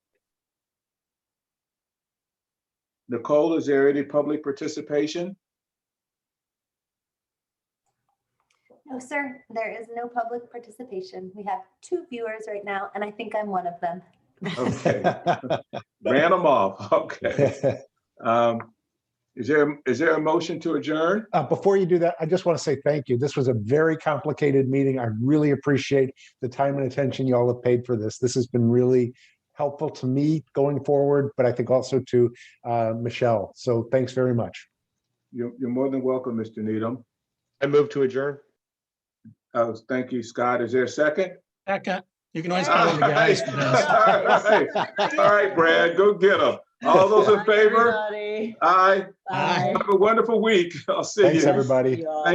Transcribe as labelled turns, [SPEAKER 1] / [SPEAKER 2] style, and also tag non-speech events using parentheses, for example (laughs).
[SPEAKER 1] Nicole, is there any public participation?
[SPEAKER 2] No, sir, there is no public participation. We have two viewers right now, and I think I'm one of them.
[SPEAKER 1] Okay,
[SPEAKER 3] (laughs)
[SPEAKER 1] Ran them off, okay. Um, Is there, is there a motion to adjourn?
[SPEAKER 3] Uh, Before you do that, I just want to say thank you. This was a very complicated meeting. I really appreciate the time and attention y'all have paid for this. This has been really helpful to me going forward, but I think also to uh, Michelle. So thanks very much.
[SPEAKER 1] You're, you're more than welcome, Mr. Needham.
[SPEAKER 4] I move to adjourn.
[SPEAKER 1] Uh, Thank you, Scott. Is there a second?
[SPEAKER 5] Becca, you can
[SPEAKER 1] All
[SPEAKER 5] always call them
[SPEAKER 1] (laughs)
[SPEAKER 5] the guys. for this.
[SPEAKER 1] right, All right, Brad, go get them. All those in favor?
[SPEAKER 5] (laughs)
[SPEAKER 6] Everybody.
[SPEAKER 1] Aye.
[SPEAKER 5] Aye.
[SPEAKER 6] Bye.
[SPEAKER 1] Have a wonderful week. I'll see you.
[SPEAKER 3] Thanks, everybody.
[SPEAKER 6] You all.